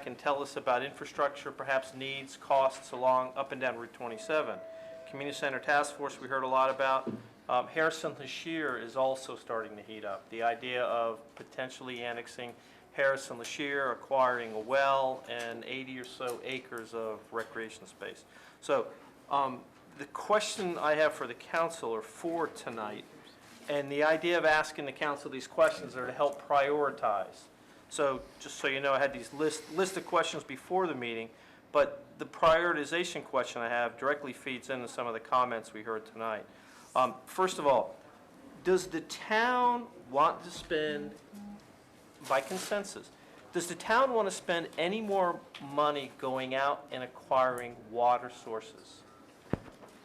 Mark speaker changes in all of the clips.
Speaker 1: can tell us about infrastructure, perhaps needs, costs along up and down Route 27. Community Center Task Force, we heard a lot about. Um, Harrison Lashir is also starting to heat up. The idea of potentially annexing Harrison Lashir, acquiring a well, and 80 or so acres of recreation space. So um, the question I have for the council or for tonight, and the idea of asking the council these questions are to help prioritize. So just so you know, I had these list, list of questions before the meeting, but the prioritization question I have directly feeds into some of the comments we heard tonight. Um, First of all, does the town want to spend, by consensus, does the town want to spend any more money going out and acquiring water sources?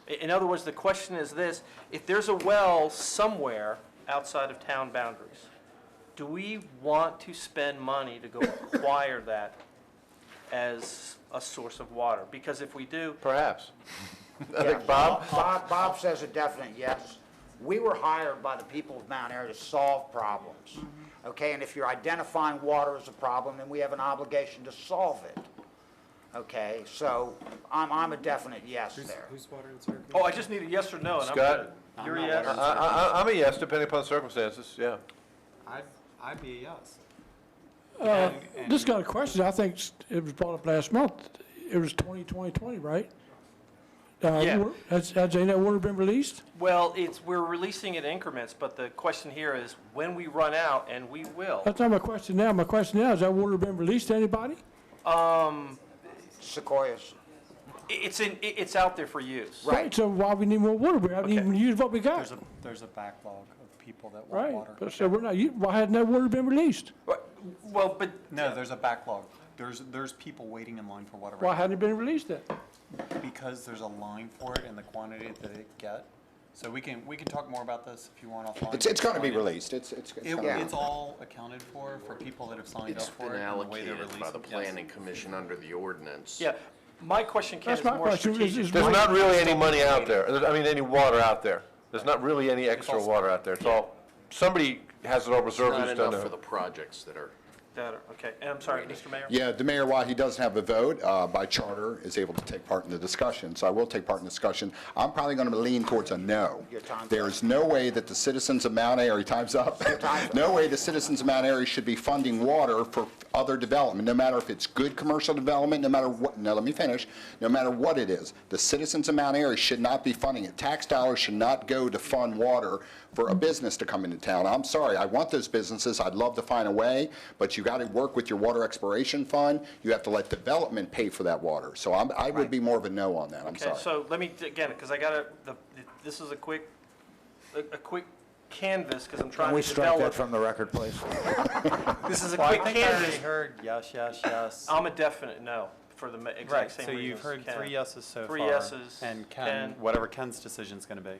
Speaker 1: I- In other words, the question is this, if there's a well somewhere outside of town boundaries, do we want to spend money to go acquire that as a source of water? Because if we do,
Speaker 2: Perhaps. I
Speaker 3: Yeah,
Speaker 2: think Bob,
Speaker 3: Bob, Bob says a definite yes. We were hired by the people of Mount Air to solve problems,
Speaker 4: Mm-hmm.
Speaker 3: okay? And if you're identifying water as a problem, then we have an obligation to solve it, okay? So I'm, I'm a definite yes there.
Speaker 4: Who's water and sewer?
Speaker 1: oh, I just need a yes or no, and I'm
Speaker 2: Scott?
Speaker 1: good. You're a
Speaker 3: I'm not
Speaker 2: I,
Speaker 1: yes?
Speaker 3: water.
Speaker 5: Uh-uh.
Speaker 2: I, I- I'm a yes, depending upon circumstances, yeah.
Speaker 4: I'd, I'd be a yes.
Speaker 5: Uh,
Speaker 4: And- and-
Speaker 5: Just got a question. I think s- it was brought up last month. It was 20, 20, 20, right? Uh,
Speaker 1: Yeah.
Speaker 5: wa- Has, has any of that water been released?
Speaker 1: Well, it's, we're releasing it in increments, but the question here is, when we run out, and we will,
Speaker 5: That's not my question now. My question now, has that water been released to anybody?
Speaker 1: um,
Speaker 3: Sequoias,
Speaker 1: i- it's in, i- it's out there for use.
Speaker 3: Right.
Speaker 5: So why we need more water? We haven't
Speaker 1: Okay.
Speaker 5: even used what we
Speaker 4: There's
Speaker 5: got,
Speaker 4: a, there's a backlog of people that want
Speaker 5: right?
Speaker 4: water.
Speaker 5: But So we're not, u- why hadn't that water been released?
Speaker 1: Well, but
Speaker 4: No, there's a backlog. There's, there's people waiting in line for water
Speaker 5: Why
Speaker 4: right
Speaker 5: hadn't it been released then?
Speaker 4: now because there's a line for it and the quantity that it get. So we can, we can talk more about this if you want offline.
Speaker 6: It's, it's gonna be
Speaker 4: Find it.
Speaker 6: released, it's, it's. it's
Speaker 4: It,
Speaker 6: gonna be-
Speaker 4: it's all accounted for, for people that have signed up
Speaker 7: It's
Speaker 4: for
Speaker 7: been
Speaker 4: it and the way they
Speaker 7: allocated
Speaker 4: release
Speaker 7: by the
Speaker 4: it. Yes.
Speaker 7: planning commission under the ordinance.
Speaker 1: Yeah, my question, Ken,
Speaker 5: That's
Speaker 1: is
Speaker 5: my
Speaker 1: more
Speaker 5: question, is-
Speaker 1: strategic.
Speaker 5: is
Speaker 2: There's
Speaker 5: Why-
Speaker 2: not really any money out there, There's- I mean, any water out there. There's not really any extra
Speaker 4: all-
Speaker 2: water out there, it's all, somebody has it all reserved,
Speaker 7: Not
Speaker 2: who's done
Speaker 7: enough for
Speaker 2: it.
Speaker 7: the projects that are,
Speaker 1: That- Okay, and I'm sorry, Mr. Mayor?
Speaker 6: Yeah, the mayor, while he doesn't have a vote, uh, by charter, is able to take part in the discussion, so I will take part in the discussion. I'm probably gonna lean towards a no.
Speaker 3: Your time's up.
Speaker 6: There is no way that the citizens of Mount Airy, time's up.
Speaker 3: time's up.
Speaker 6: No way the citizens of Mount Airy should be funding water for other development, no matter if it's good commercial development, no matter what, no, let me finish, no matter what it is. The citizens of Mount Airy should not be funding it. Tax dollars should not go to fund water for a business to come into town. I'm sorry, I want those businesses, I'd love to find a way, but you got to work with your water exploration fund. You have to let development pay for that water. So I'm, I would be more of a no on that, I'm
Speaker 1: Okay,
Speaker 6: sorry.
Speaker 1: so let me, again, because I gotta, the, this is a quick, a, a quick canvas, because I'm trying
Speaker 8: Can
Speaker 1: to
Speaker 8: we strike
Speaker 1: develop.
Speaker 8: that from the record, please?
Speaker 1: This is a
Speaker 4: Well, I
Speaker 1: quick
Speaker 4: think I already
Speaker 1: canvas.
Speaker 4: heard yes, yes, yes.
Speaker 1: I'm a definite no for the ma-
Speaker 4: Right,
Speaker 1: exact same
Speaker 4: so
Speaker 1: reasons.
Speaker 4: you've heard
Speaker 1: Ken.
Speaker 4: three yeses so far.
Speaker 1: Three yeses,
Speaker 4: And Ken,
Speaker 1: Ken.
Speaker 4: whatever Ken's decision's gonna be.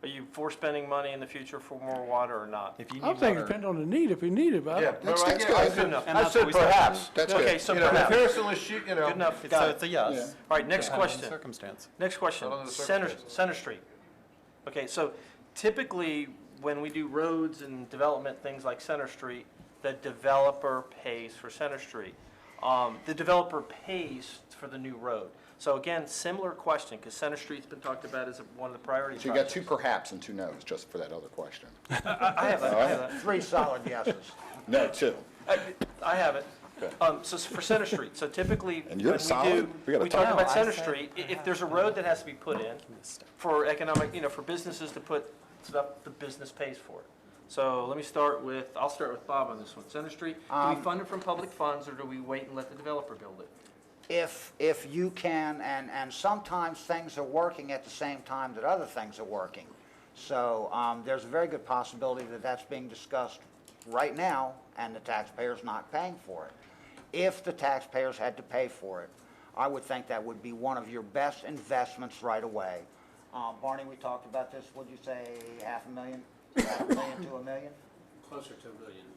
Speaker 1: Are you for spending money in the future for more water or not?
Speaker 4: If you need
Speaker 5: I think it
Speaker 4: water-
Speaker 5: depends on the need, if we need it, but I
Speaker 2: Yeah,
Speaker 5: don't-
Speaker 2: no,
Speaker 6: That's-
Speaker 2: I
Speaker 6: that's
Speaker 2: get- I
Speaker 6: good.
Speaker 2: said-
Speaker 1: Good enough.
Speaker 2: I said
Speaker 4: And that's what we said.
Speaker 2: perhaps,
Speaker 6: That's good.
Speaker 1: Okay, so
Speaker 2: you know, if
Speaker 1: perhaps.
Speaker 2: Harrison was shoot, you know.
Speaker 1: Good enough,
Speaker 4: It's,
Speaker 1: got
Speaker 4: so
Speaker 1: it.
Speaker 4: it's a yes.
Speaker 1: All right, next
Speaker 4: Depending on
Speaker 1: question.
Speaker 4: Circumstance.
Speaker 1: Next question,
Speaker 2: Not under the
Speaker 1: Center,
Speaker 2: circumstances.
Speaker 1: Center Street. Okay, so typically, when we do roads and development, things like Center Street, the developer pays for Center Street. Um, The developer pays for the new road. So again, similar question, because Center Street's been talked about as one of the priority
Speaker 6: So you got
Speaker 1: projects.
Speaker 6: two perhaps and two no's, just for that other question.
Speaker 1: I I have it, I have it.
Speaker 3: three solid yeses.
Speaker 6: No, two.
Speaker 1: I- I have it. Um, so s- for Center Street, so typically, when
Speaker 6: And
Speaker 1: we
Speaker 6: you're
Speaker 1: do,
Speaker 6: solid. We got a
Speaker 1: we talk
Speaker 6: tie.
Speaker 1: about
Speaker 4: No, I
Speaker 1: Center
Speaker 4: said
Speaker 1: Street, i- if there's a road that has to be put in for economic, you know, for businesses to put stuff, the business pays for it. So let me start with, I'll start with Bob on this one. Center Street, do
Speaker 4: Um,
Speaker 1: we fund it from public funds or do we wait and let the developer build it?
Speaker 3: if, if you can, and, and sometimes things are working at the same time that other things are working. So, um, there's a very good possibility that that's being discussed right now, and the taxpayer's not paying for it. If the taxpayers had to pay for it, I would think that would be one of your best investments right away. Uh, Barney, we talked about this, what'd you say, half a million? Half a million to a million?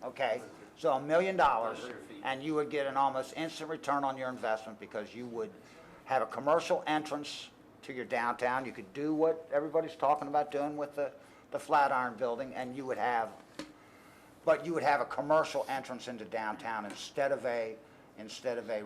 Speaker 3: Okay, so a million dollars, and you would get an almost instant return on your investment because you would have a commercial entrance to your downtown. You could do what everybody's talking about doing with the, the Flatiron Building, and you would have, but you would have a commercial entrance into downtown instead of a, instead of a